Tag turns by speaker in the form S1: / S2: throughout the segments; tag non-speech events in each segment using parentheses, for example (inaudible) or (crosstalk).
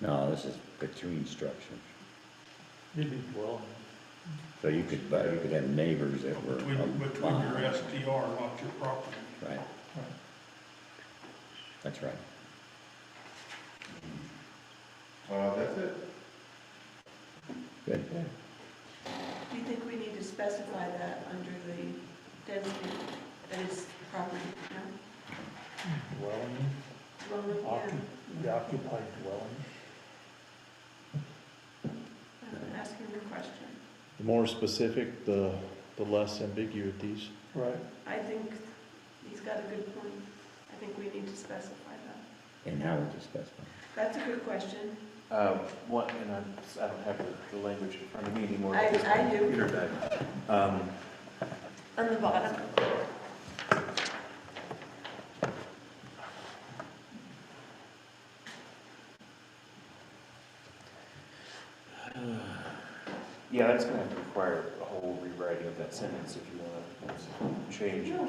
S1: No, this is between structures.
S2: It'd be dwelling.
S1: So you could, but you could have neighbors that were. um,
S3: Between, between your
S1: aligned.
S3: STR, not your property.
S1: Right. That's right.
S4: Uh, that's it.
S1: Good.
S5: Do you think we need to specify that under the density that is property, no?
S2: Dwelling,
S5: Dwelling,
S2: occu-
S5: yeah.
S2: the occupied dwelling.
S5: I'm asking the question.
S6: The more specific, the, the less ambiguous these.
S2: Right.
S5: I think he's got a good point. I think we need to specify that.
S1: And how would you specify?
S5: That's a good question.
S7: Um, What, and I'm, I don't have the, the language in front of me anymore.
S5: I-
S7: because my
S5: I do.
S7: Computer died. Um,
S5: On the bottom.
S7: (sighs) yeah, that's gonna have to require a whole rewriting of that sentence if you wanna change it.
S5: No,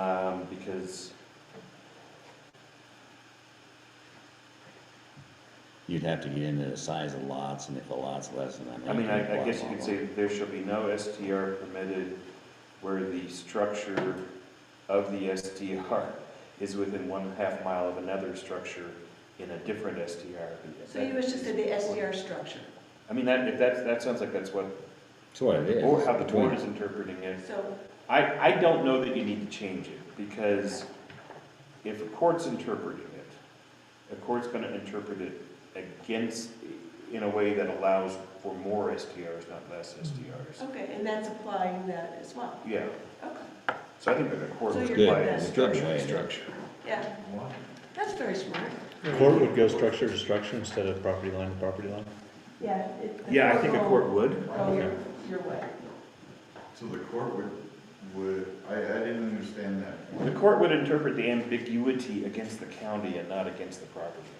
S7: Um, because,
S1: You'd have to get into the size of lots and if a lot's less than an
S7: I mean,
S1: acre,
S7: I, I
S1: blah,
S7: guess you
S1: blah,
S7: could
S1: blah.
S7: say that there shall be no STR permitted where the structure of the STR is within one half mile of another structure in a different STR.
S5: So you wish to say the SDR structure.
S7: I mean, that, if that's, that sounds like that's what,
S1: It's what it is.
S7: or how the board
S1: Between-
S7: is interpreting it.
S5: So,
S7: I, I don't know that you need to change it, because if a court's interpreting it, a court's gonna interpret it against, in a way that allows for more STRs, not less STRs.
S5: okay, and that's applying that as well.
S7: Yeah,
S5: Okay,
S7: so I think that the court
S5: So
S7: would
S5: you're
S1: Good,
S7: apply
S5: good.
S7: the
S1: It's a
S7: structure
S1: good
S7: to
S1: way.
S7: structure.
S5: yeah, that's very smart.
S6: Court would go structure to structure instead of property line to property line.
S5: Yeah.
S7: Yeah, I think a court would.
S5: Well, you're, you're right.
S4: So the court would, would, I, I didn't understand that.
S7: The court would interpret the ambiguity against the county and not against the property owner.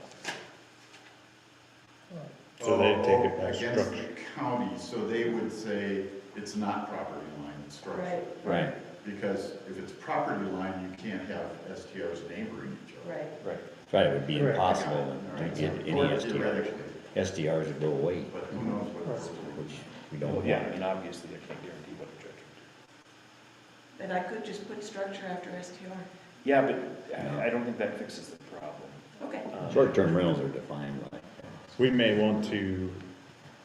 S6: So they'd take it
S4: Oh, oh,
S6: by
S4: Against
S6: structure.
S4: the county, so they would say it's not property line, it's structure.
S5: Right,
S1: Right,
S4: Because if it's property line, you can't have STRs neighboring each other.
S5: right.
S7: Right.
S1: right, it would be
S2: Correct.
S1: impossible
S4: All
S1: to
S4: right,
S1: get
S4: so
S1: any
S4: or
S1: SDRs.
S4: theoretically,
S1: SDRs would go away,
S4: But who knows what it's.
S1: which we don't
S7: Well,
S1: want.
S7: yeah, I mean, obviously, I can't guarantee what a judge would
S5: And I could just put structure after STR.
S7: do. Yeah, but I, I don't think that fixes the problem.
S5: Okay,
S7: Um,
S1: Short-term rentals are defined like that.
S6: We may want to,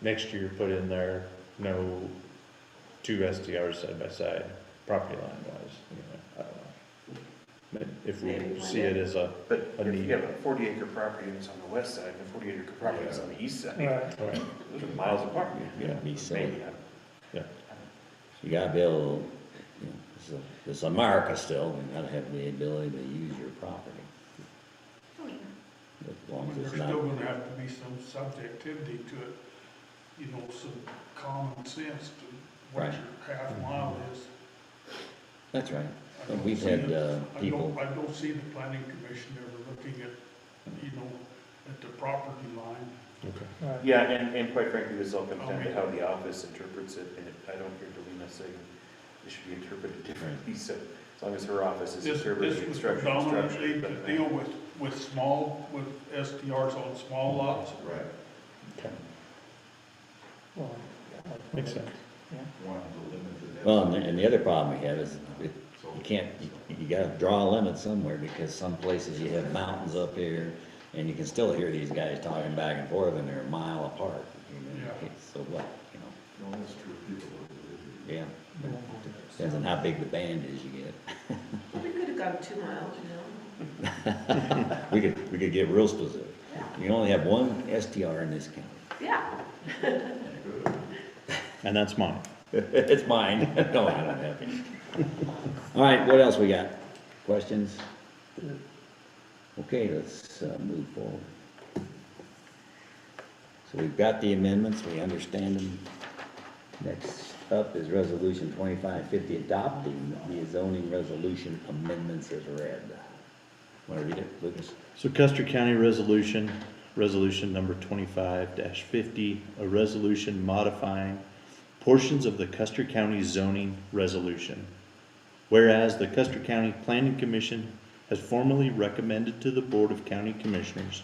S6: next year, put in there, no two STRs side by side, property line wise, you know, I don't know. But if
S5: Maybe
S6: we
S5: one
S6: see it
S5: day.
S6: as a,
S7: But
S6: A
S7: if
S6: need.
S7: you have a forty acre property and it's on the west side, and a forty acre property that's on the east side,
S2: Right.
S6: right,
S7: those are miles apart. you know,
S1: Yeah, be safe.
S7: maybe, I don't-
S1: You gotta be able, you know, this is- this is America still, you gotta have the ability to use your property,
S5: Hmm.
S1: as long as
S3: There's
S1: it's
S3: still
S1: not
S3: gonna have to be some subjectivity to it, you know, some common sense to what
S1: Right.
S3: your half mile
S6: Mm-hmm.
S3: is.
S1: That's right.
S3: I
S1: And
S3: don't
S1: we've
S3: see
S1: had
S3: it.
S1: uh,
S3: I
S1: people,
S3: don't, I don't see the planning commission ever looking at, you know, at the property line.
S6: okay.
S2: Right.
S7: Yeah, and, and quite frankly, this all comes down to how the office interprets it, and if- I don't hear Delina saying it should be interpreted differently, so as long as her office is
S3: This, this
S7: interpreting
S3: was
S7: structure to
S3: predominantly
S7: structure.
S3: to
S7: but-
S3: deal with, with small, with SDRs on small lots.
S4: Right,
S2: Well,
S6: Makes sense.
S4: one of the limited.
S1: well, and the- and the other problem we have is it-
S4: So-
S1: you can't, you- you gotta draw a limit somewhere because some places you have mountains up here and you can still hear these guys talking back and forth and they're a mile apart. you know,
S3: Yeah.
S1: okay, So what, you know,
S4: No, that's true, people would believe
S1: yeah, depends on how big the band is you get.
S5: Well, we could have gone two miles, you know?
S1: We could, we could get real specific. You can only have one STR in this county. (laughs)
S5: Yeah,
S4: it. Good.
S6: And that's mine.
S1: It's mine. (laughs) No, I don't have any. All right, what else we got? Questions? Okay, let's uh, move forward. So we've got the amendments, we understand them. Next up is Resolution 2550, adopting the zoning resolution amendments as read. Want to read it, Lucas?
S6: So Custer County Resolution, Resolution Number twenty-five fifty, a resolution modifying portions of the Custer County zoning resolution. Whereas the Custer County Planning Commission has formally recommended to the Board of County Commissioners